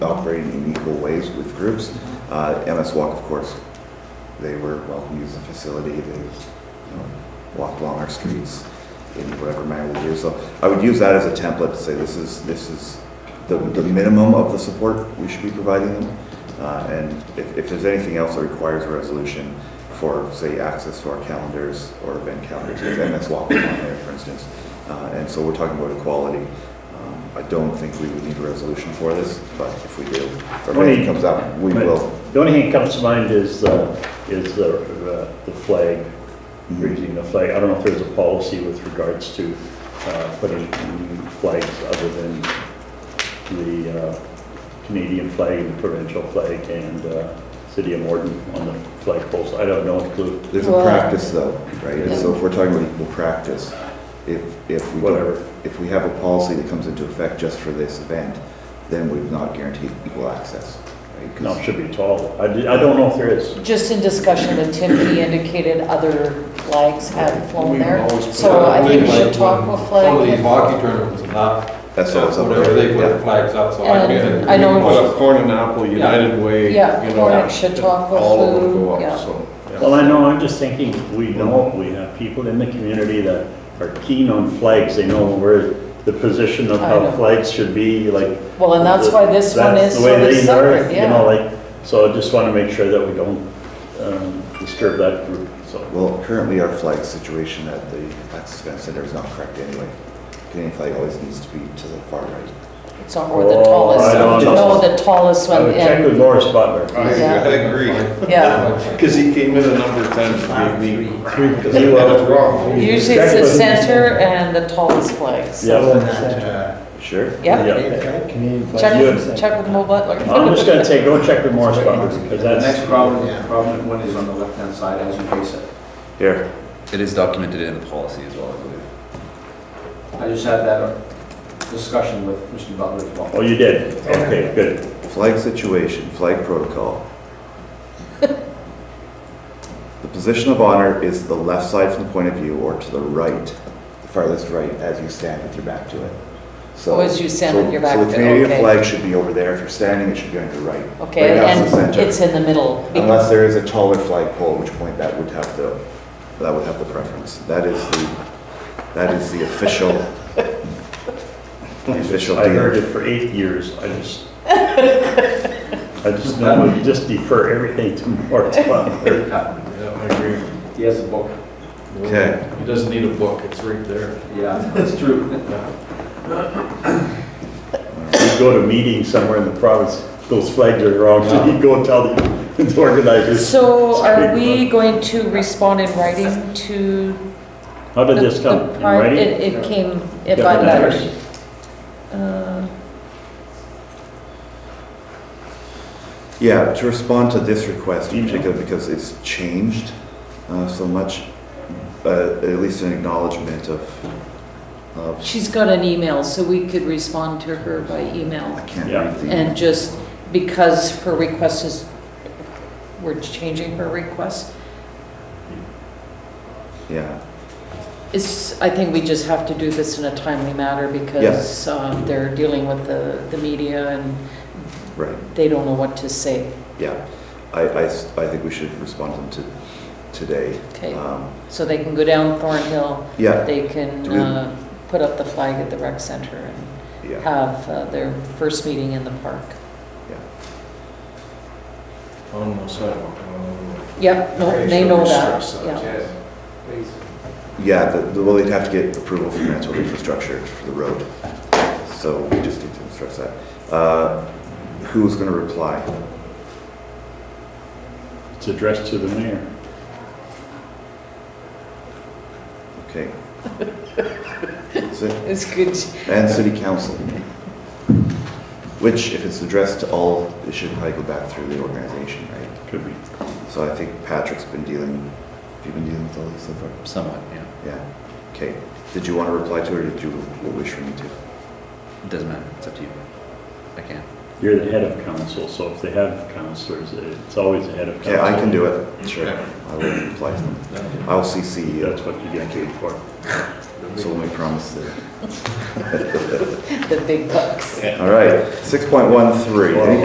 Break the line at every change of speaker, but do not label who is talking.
operating in equal ways with groups. Uh, MS Walk, of course, they were welcome to use the facility. They you know, walked along our streets in whatever manner we do. So I would use that as a template to say this is this is the, the minimum of the support we should be providing them. Uh, and if, if there's anything else that requires a resolution for, say, access to our calendars or event calendars, because MS Walk was on there, for instance. Uh, and so we're talking about equality. Um, I don't think we would need a resolution for this, but if we do, or if
Only-
it comes up, we
Right.
will.
The only thing that comes to mind is, uh, is the, uh, the flag,
Mm-hmm.
raising the flag. I don't know if there's a policy with regards to, uh, putting flags other than the, uh, Canadian flag and the provincial flag and, uh, city of Morden on the flag poles. I don't know if Luke,
There's a
Well-
practice though, right? And so if we're talking about equal practice, if, if we don't,
whatever.
if we have a policy that comes into effect just for this event, then we've not guaranteed equal access, right? 'Cause-
No, it should be tall. I, di- I don't know if there is.
Just in discussion with Tim, he indicated other flags had flown
We've
there.
always put
So
up
I think we
flags
should
when
talk with
One of these
flag.
hockey tournaments and that,
That's all it's up
whatever, they
there,
put the
yeah.
flags up, so I
And
get it.
I know-
Put up Corn and Apple, United Way, you
Yeah,
know.
Corn and Chautauqua
All of them
Flu,
go
yeah.
up, so.
Well, I know, I'm just thinking, we know, we have people in the community that are keen on flags, they know where the position of
I
how
know.
flags should be, like.
Well, and that's why this one
that's
is
the way
sort of
they are,
separate,
You know,
yeah.
like, so I just want to make sure that we don't um, disturb that group, so.
Well, currently our flag situation at the Access Event Center is not correct anyway. Canadian flag always needs to be to the far right.
It's not, or the
Oh,
I
tallest.
don't
No,
know.
the tallest
I
one,
would check with
and,
Morris Butler.
I
Yeah.
agree.
yeah.
Because he came in a number of times to be me. Because
He
he
was-
was wrong.
Usually it's the center and the tallest flags.
Yeah.
Sure?
Yeah, check,
Yeah.
check with Mo Butler.
I'm just going to say, go check with Morris Butler, because
The next
that's,
prominent, prominent one is on the left-hand side as you face it.
Here.
It is documented in the policy as well, I believe.
I just had that discussion with Mr. Butler as well.
oh, you did, okay, good.
Flag situation, flag protocol. The position of honor is the left side from the point of view or to the right, the farthest right, as you stand with your back to it. So.
Oh, as you stand
so-
with your back
So
to
the
it,
Canadian
okay.
flag should be over there. If you're standing, it should be on your right. Right
Okay,
now,
and
it's the center.
it's in the middle.
Unless there is a taller flagpole, at which point that would have the, that would have the preference. That is the, that is the official, the official
I heard
deal.
it for eight years, I just, I just know, we just defer everything to March 12th.
Yeah,
Yeah, I agree.
He has a book,
Okay.
He doesn't need a book, it's right there.
yeah, that's true.
You go to meetings somewhere in the province, those flags are wrong, so you go tell the organizers.
So are we going to respond in writing to?
How did this
the-
come?
the
In
pri-
writing?
It, it came, if
Yeah,
I'm
in
not.
writing.
Uh,
Yeah, to respond to this request in
Email.
particular, because it's changed uh, so much, uh, at least an acknowledgement of, of,
She's got an email, so we could respond to her by
I
email.
can't
Yeah.
read the.
And just because her request is, we're changing her request,
Yeah,
it's, I think we just have to do this in a timely manner because um, they're dealing with the, the media and
right,
they don't know what to say.
yeah. I, I s- I think we should respond to them to, today.
Okay,
Um,
so they can go down Thornhill,
Yeah,
they can
Do we-
uh, put up the flag at the rec center and
yeah.
have uh, their first meeting in the park.
On the sidewalk. on the road.
Yep, no,
Right,
they
so
know
we
that,
stress that,
yeah.
Yeah, the, the- well, they'd have to get approval from Manitoba Infrastructure for the road. So we just need to stress that. Uh, Who's going to reply?
It's addressed to the mayor.
Okay. That's it.
It's good.
And city council. Which, if it's addressed to all, it should probably go back through the organization, right?
Could be.
So I think Patrick's been dealing, have you been dealing with all this so far?
Somewhat, yeah.
Yeah. Okay. Did you want to reply to it or did you wish for me to?
It doesn't matter, it's up to you. I can't.
You're the head of council, so if they have councilors, it's always the head of council.
Okay, I can do it. Sure. I will reply to them.
Yeah.
I will CC E you.
That's what you get paid for.
The
It's only promise there.
the big bucks.
All right, 6.13, any